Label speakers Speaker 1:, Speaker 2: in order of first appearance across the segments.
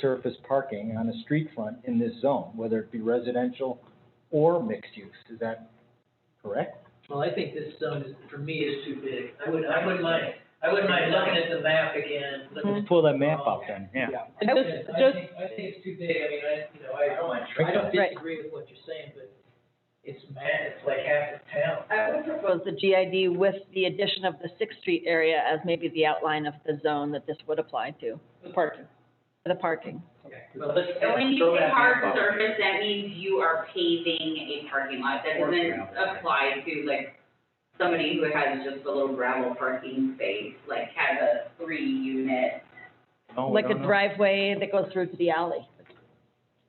Speaker 1: surface parking on a street front in this zone, whether it be residential or mixed use. Is that correct?
Speaker 2: Well, I think this zone is, for me, is too big. I would, I wouldn't mind, I wouldn't mind looking at the map again, looking
Speaker 1: Let's pull that map up then, yeah.
Speaker 3: And
Speaker 2: I
Speaker 3: just,
Speaker 2: I
Speaker 3: just,
Speaker 2: think, I think it's too big, I mean, I, you know, I, I don't
Speaker 1: Right.
Speaker 2: disagree with what you're saying, but it's mad, it's like half the town.
Speaker 3: I would propose the GID with the addition of the Sixth Street area as maybe the outline of the zone that this would apply to,
Speaker 2: The parking.
Speaker 3: the parking.
Speaker 2: Well, let's.
Speaker 4: And when you
Speaker 2: throw
Speaker 4: say
Speaker 2: that
Speaker 4: hard
Speaker 2: map out.
Speaker 4: surface, that means you are paving a parking lot. That doesn't apply to like somebody who has just a little gravel parking space, like has a three unit.
Speaker 1: No, Oh, we
Speaker 3: Like a
Speaker 1: don't know.
Speaker 3: driveway that goes through to the alley.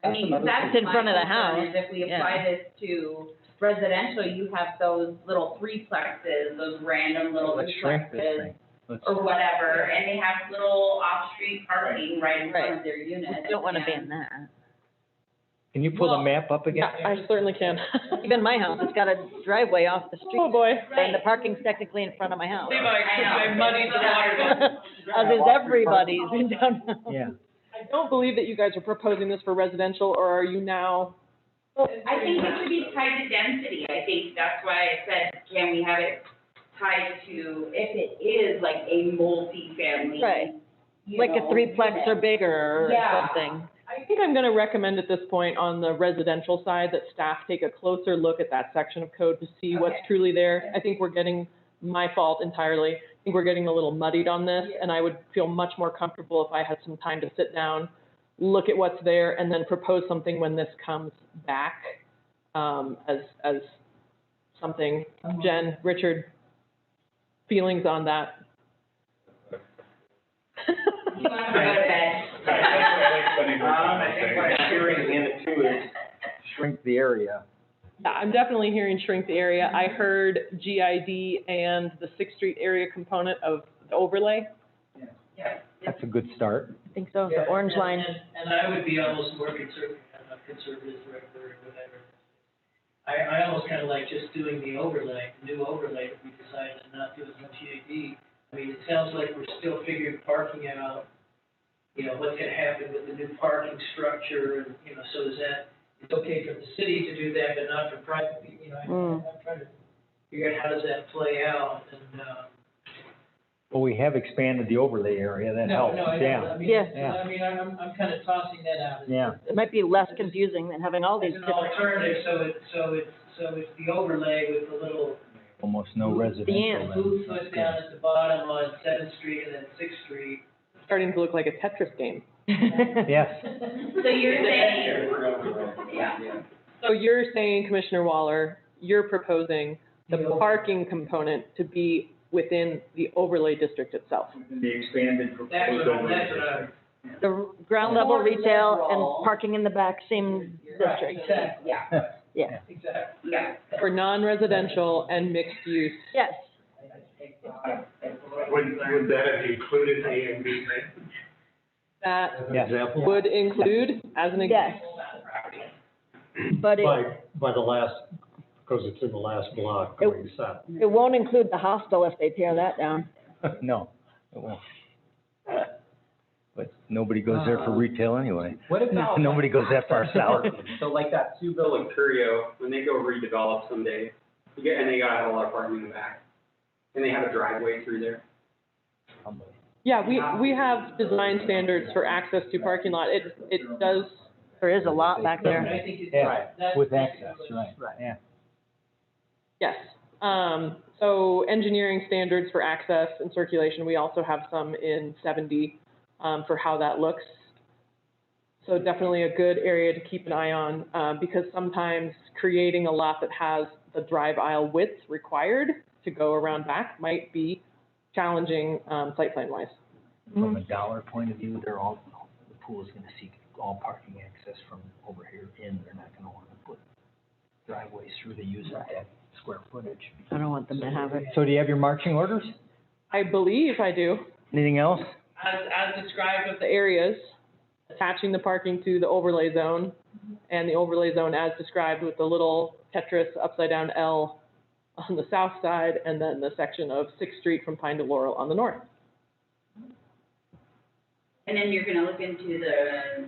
Speaker 4: I mean,
Speaker 1: That's another
Speaker 4: that's
Speaker 3: thing. In front of the
Speaker 4: my concern, is If we
Speaker 3: house,
Speaker 4: apply this to residential, you have those little threplexes, those random little
Speaker 1: Let's shrink this
Speaker 4: duplexes
Speaker 1: thing. Let's,
Speaker 4: or whatever, and they have little off-street parking right in front
Speaker 3: Right.
Speaker 4: of their unit.
Speaker 3: I don't want to ban
Speaker 4: and-
Speaker 3: that.
Speaker 1: can you pull the
Speaker 5: Well,
Speaker 1: map up again?
Speaker 5: I certainly can.
Speaker 3: Even my house, it's got a driveway off the
Speaker 5: Oh,
Speaker 3: street,
Speaker 5: boy.
Speaker 3: and the parking's technically in front of my house.
Speaker 4: I know.
Speaker 3: As is everybody's in downtown.
Speaker 1: Yeah,
Speaker 5: I don't believe that you guys are proposing this for residential, or are you now?
Speaker 4: I think it should be tied to density, I think that's why I said, can we have it tied to, if it is like a multifamily.
Speaker 3: Right.
Speaker 4: you
Speaker 3: Like a
Speaker 4: know,
Speaker 3: threeplex or
Speaker 4: unit.
Speaker 3: bigger or
Speaker 4: Yeah.
Speaker 3: something.
Speaker 5: I think I'm gonna recommend at this point on the residential side that staff take a closer look at that section of code to see what's
Speaker 4: Okay.
Speaker 5: truly there. I think we're getting, my fault entirely, I think we're getting a little muddied on this, and I would feel much more comfortable if I had some time to sit down, look at what's there, and then propose something when this comes back, um, as, as something. Jen, Richard, feelings on that?
Speaker 4: You wanna go to bed?
Speaker 6: Um, I think what I'm hearing in it too is,
Speaker 1: shrink the area.
Speaker 5: Yeah, I'm definitely hearing shrink the area. I heard GID and the Sixth Street area component of the overlay.
Speaker 1: That's a good start.
Speaker 3: I think so,
Speaker 2: Yeah,
Speaker 3: the orange
Speaker 2: and-
Speaker 3: line.
Speaker 2: and- And I would be almost more conservative, I'm a conservative director or whatever. I, I almost kind of like just doing the overlay, the new overlay, if we decided to not do as much EAD. I mean, it sounds like we're still figuring parking out, you know, what's gonna happen with the new parking structure and, you know, so is that, it's okay for the city to do that, but not for private, pe- you know,
Speaker 3: Mm.
Speaker 2: I- I'm trying to figure out how does that play out and, um.
Speaker 1: Well, we have expanded the overlay area, that
Speaker 2: no,
Speaker 1: helps,
Speaker 2: no, I
Speaker 1: yeah.
Speaker 2: don't. I mean,
Speaker 3: Yeah.
Speaker 1: Yeah.
Speaker 2: I mean, I'm, I'm kind of tossing that out. as-
Speaker 1: Yeah,
Speaker 3: It might be less confusing than having all these
Speaker 2: It's an
Speaker 3: different.
Speaker 2: alternative, so it, so it, so it's the overlay with the little
Speaker 1: almost no residential.
Speaker 3: end.
Speaker 1: then.
Speaker 2: blue foot down at the bottom on Seventh Street and then Sixth Street.
Speaker 5: Starting to look like a Tetris game.
Speaker 1: Yes,
Speaker 4: So you're saying,
Speaker 6: yeah.
Speaker 5: So you're saying, Commissioner Waller, you're proposing the
Speaker 2: Yeah.
Speaker 5: parking component to be within the overlay district itself.
Speaker 6: The expanded
Speaker 2: That's
Speaker 6: proposed
Speaker 2: what, I'm- that's what
Speaker 6: overlay.
Speaker 2: I'm.
Speaker 3: The ground level
Speaker 4: More
Speaker 3: retail
Speaker 4: liberal.
Speaker 3: and parking in the back seem
Speaker 2: Right,
Speaker 3: district.
Speaker 2: Exactly,
Speaker 4: yeah,
Speaker 2: exactly.
Speaker 4: yeah.
Speaker 5: For non-residential and mixed use,
Speaker 3: Yes,
Speaker 6: Would, would that have included A and B then?
Speaker 5: that
Speaker 6: as an
Speaker 1: Yes.
Speaker 6: Example?
Speaker 5: would include, as an
Speaker 3: yes,
Speaker 5: example.
Speaker 3: but it,
Speaker 7: By, by the last, because it's in the last block
Speaker 3: It-
Speaker 7: going south.
Speaker 3: it won't include the hostel if they tear that down.
Speaker 1: no, it won't. But nobody goes there for retail anyway.
Speaker 8: What about?
Speaker 1: Nobody goes that far south.
Speaker 8: So like that Seville and Curio, when they go redevelop someday, you get, and they gotta have a lot of parking in the back. And they have a driveway through there.
Speaker 5: Yeah, we, we have design standards for access to parking lot. It, it does
Speaker 3: There is a lot back
Speaker 2: And
Speaker 3: there.
Speaker 2: I think it's.
Speaker 1: Yeah,
Speaker 2: that's-
Speaker 1: With access, right, yeah.
Speaker 5: Yes. Um, so engineering standards for access and circulation, we also have some in seventy, um, for how that looks. So definitely a good area to keep an eye on, uh, because sometimes creating a lot that has the drive aisle width required to go around back might be challenging, um, site plan wise.
Speaker 1: From a dollar point of view, they're all, the pool's gonna seek all parking access from over here in. They're not gonna wanna put driveways through to use up that square footage.
Speaker 3: I don't want them to have it.
Speaker 1: So do you have your marching orders?
Speaker 5: I believe I do,
Speaker 1: Anything else?
Speaker 5: as, as described of the areas, attaching the parking to the overlay zone, and the overlay zone as described with the little Tetris upside down L on the south side, and then the section of Sixth Street from Pine to Laurel on the north.
Speaker 4: And then you're gonna look into the